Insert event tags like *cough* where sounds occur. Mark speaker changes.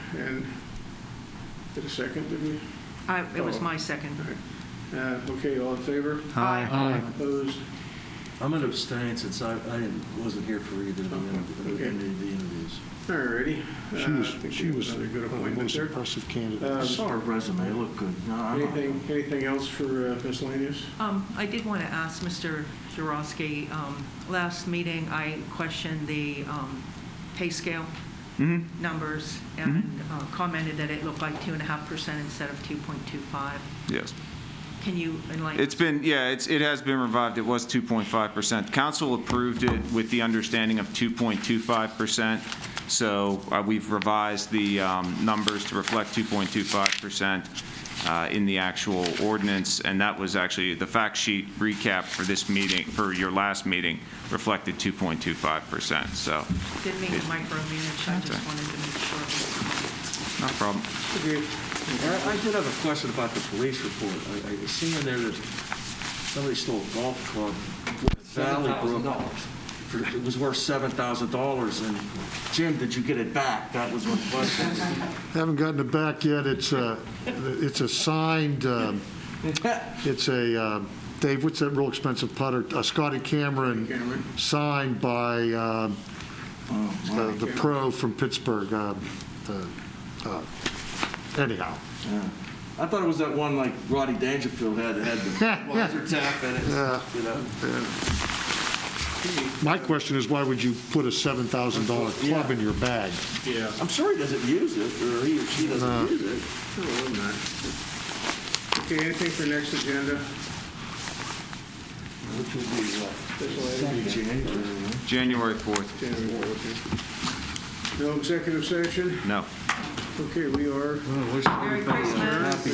Speaker 1: and, did a second, did we?
Speaker 2: I- It was
Speaker 1: Oh.
Speaker 2: my second.
Speaker 1: Uh, Okay, all in favor?
Speaker 2: Aye.
Speaker 1: Opposed?
Speaker 3: I'm going to abstain since I, I didn't- wasn't here for either of the, inter-
Speaker 1: Okay.
Speaker 3: any of the interviews.
Speaker 1: All righty.
Speaker 4: She
Speaker 1: Uh,
Speaker 4: was,
Speaker 1: I think
Speaker 4: she
Speaker 1: we
Speaker 4: was
Speaker 1: have
Speaker 4: one
Speaker 1: Another good
Speaker 4: of the
Speaker 1: appointment
Speaker 4: most
Speaker 1: there. Um,
Speaker 4: impressive
Speaker 3: I
Speaker 4: candidates.
Speaker 3: saw her resume, it looked good. No, I'm-
Speaker 1: Anything, anything else for uh, miscellaneous?
Speaker 2: Um, I did want to ask Mr. Jurovsky, um, last meeting, I questioned the um, pay scale
Speaker 5: Mm-hmm.
Speaker 2: numbers and uh, commented that it looked like 2.5% instead of 2.25.
Speaker 5: Yes.
Speaker 2: Can you enlighten?
Speaker 5: It's been, yeah, it's, it has been revived. It was 2.5%. Council approved it with the understanding of 2.25%. So uh, we've revised the um, numbers to reflect 2.25% uh, in the actual ordinance. And that was actually, the fact sheet recap for this meeting, for your last meeting, reflected 2.25%. So,
Speaker 2: Didn't mean to micromanage, I
Speaker 5: That's
Speaker 2: just wanted to make sure.
Speaker 5: no problem.
Speaker 1: Okay.
Speaker 3: I I did have a question about the police report. I, I seen in there that somebody stole a golf club. Valley Brook. For- It was worth $7,000, and Jim, did you get it back? That was my question.
Speaker 4: *laughs* Haven't gotten it back yet. It's a, it's a signed, um, it's a, um, Dave, what's that real expensive putter? A Scotty Cameron,
Speaker 1: Cameron,
Speaker 4: signed by um, the the
Speaker 1: Cameron.
Speaker 4: pro from Pittsburgh. um, the, uh, Anyhow,
Speaker 3: Yeah. I thought it was that one like Roddy Dangerfield had, had the wiser tap in
Speaker 4: Yeah.
Speaker 3: it, you know?
Speaker 4: my question is, why would you put a $7,000 club in your bag?
Speaker 1: yeah.
Speaker 3: I'm sure he doesn't use it, or he or she
Speaker 4: No.
Speaker 3: doesn't use it.
Speaker 1: No, I'm not. Okay, anything for next agenda?
Speaker 3: Which would be
Speaker 1: Miscellaneous?
Speaker 3: what? January.
Speaker 5: January 4th,
Speaker 1: January, okay. No executive session?
Speaker 5: no.
Speaker 1: Okay, we are.
Speaker 2: Very